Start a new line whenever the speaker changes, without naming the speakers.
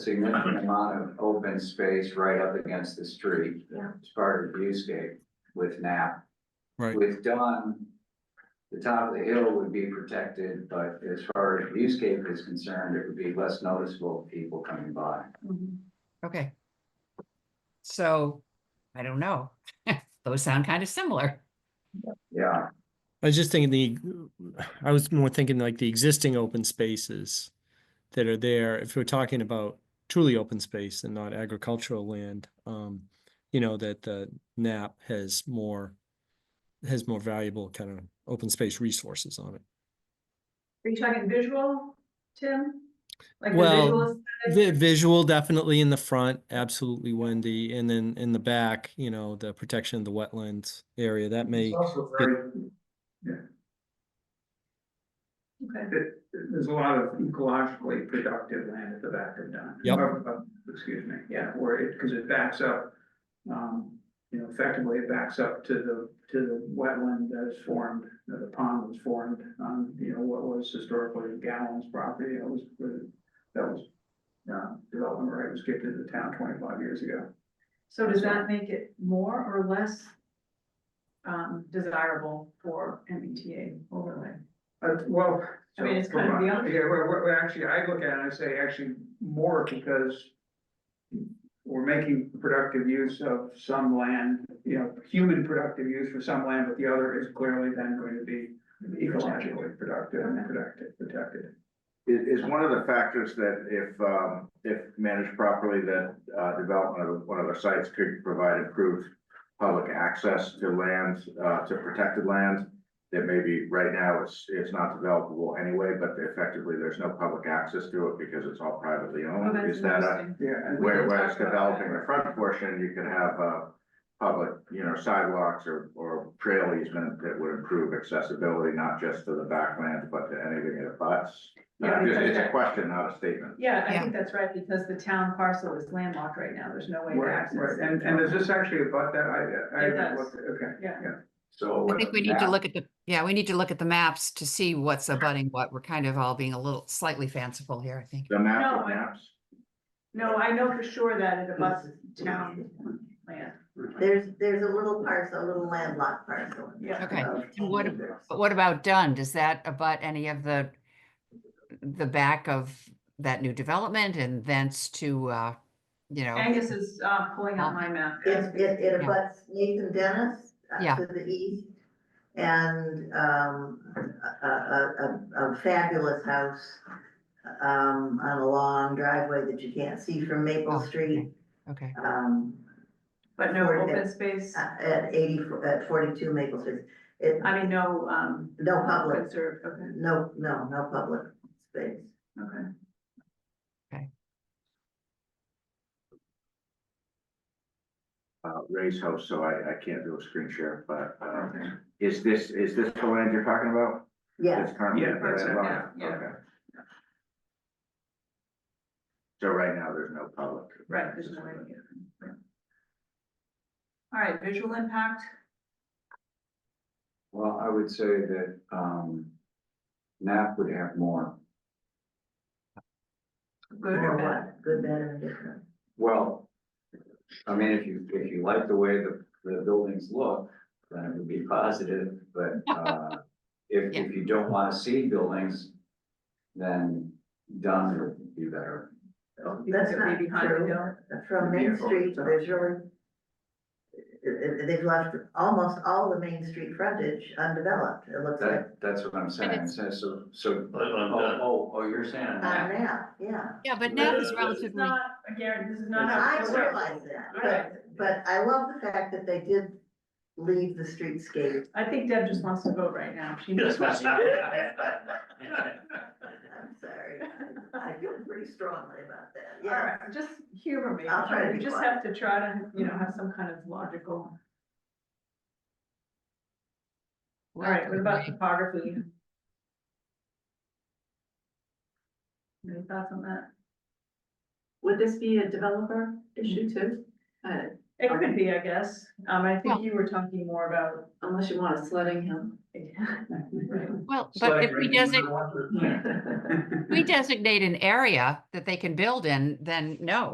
significant amount of open space right up against the street.
Yeah.
It's part of viewscape with NAP.
Right.
With Dunn, the top of the hill would be protected, but as far as viewscape is concerned, it would be less noticeable to people coming by.
Okay. So, I don't know. Those sound kind of similar.
Yeah,
I was just thinking the, I was more thinking like the existing open spaces that are there, if we're talking about truly open space and not agricultural land, um, you know, that the NAP has more, has more valuable kind of open space resources on it.
Are you talking visual, Tim? Like the
Well,
visual aesthetic?
The visual definitely in the front, absolutely Wendy, and then in the back, you know, the protection of the wetlands area, that may,
It's also very,
Okay.
it- there's a lot of ecologically productive land at the back of Dunn.
Yep.
Of- of- Excuse me, yeah, where it, because it backs up, um, you know, effectively it backs up to the, to the wetland that is formed, that the pond was formed on, you know, what was historically Gallon's property, that was, that was, uh, development right was gifted to the town twenty-five years ago.
So does that make it more or less um, desirable for MBTA overlay?
Uh, well.
I mean,
so
it's kind of
from my-
beyond-
Yeah, well, well, well, actually, I look at it and I say actually more because. We're making productive use of some land, you know, human productive use for some land, but the other is clearly then going to be ecologically productive and productive, protected.
Is, is one of the factors that if, um, if managed properly, that, uh, development of one of the sites could provide improved public access to land, uh, to protected land, that maybe right now it's, it's not developable anyway, but effectively there's no public access to it because it's all privately
Oh,
owned.
that's
Is that a,
interesting.
Yeah, and
where,
did
where
talk
it's
about that.
developing the front portion, you could have, uh, public, you know, sidewalks or, or trail easement that would improve accessibility, not just to the backlands, but to anything that abuts.
Yeah,
Uh, just-
because
It's a
that-
question, not a statement.
Yeah, I
Yeah.
think that's right, because the town parcel is landlocked right now, there's no way to
right,
access.
right,
it.
and, and is this actually about that? I, I.
It does.
looked- Okay.
Yeah.
so.
I think we need to look at the, yeah, we need to look at the maps to see what's abutting what. We're kind of all being a little slightly fanciful here, I think.
The map
No, I-
of maps.
No, I know for sure that it abuts town land.
There's, there's a little parcel, a little landlocked parcel.
Yeah.
Okay,
of
and what-
land there.
But what about Dunn? Does that abut any of the, the back of that new development and thence to, uh, you know,
Angus is uh, pulling out my map.
It, it,
Yeah.
it abuts Nathan Dennis uh,
Yeah.
to the east and, um, a, a, a- a fabulous house um, on a long driveway that you can't see from
Oh,
Maple
okay.
Street,
okay,
um,
But no open space,
at at eighty, at forty-two Maple Street. It,
I mean, no, um.
No public.
Conserved, okay,
no, no, no public space.
okay.
uh, Ray's house, so I, I can't do a screen share, but, um, is this, is this the land you're talking about?
Yeah,
It's currently.
Yeah,
in the
parts of it,
landlocked?
yeah, yeah.
Okay. So right now, there's no public.
Right, there's no way to get it. All right, visual impact,
Well, I would say that, um, NAP would have more.
good or bad?
good, bad, and different.
Well, I mean, if you, if you like the way the, the buildings look, then it would be positive, but, uh, if, if you don't wanna see buildings, then done would be better.
Because
That's
it would
not
be behind the hill.
true. From Main
Vehicle,
Street,
so.
there's really, uh, uh, they've left almost all the Main Street frontage undeveloped, it looks like.
That, that's what I'm saying, so, so, so,
But on
oh,
that-
oh, oh, you're saying
On
that.
that, yeah.
yeah, but
Yeah,
now is
that's-
It's
relatively,
not, again, this is not how.
I
it's
realize
Right.
that, but, but I love the fact that they did leave the streetscape.
I think Deb just wants to vote right now, she knows what she did.
I'm sorry, I feel pretty strongly about that,
All
yeah.
right, just humor me,
I'll try to
you
be
just
quiet.
have to try to, you know, have some kind of logical. All right, what about topography? Any thoughts on that?
Would this be a developer issue too? Uh,
It could be, I guess. Um, I think
Well-
you were talking more about. Unless you want a sledding hill.
Well, but if we designate, we designate an area that they can build in, then no,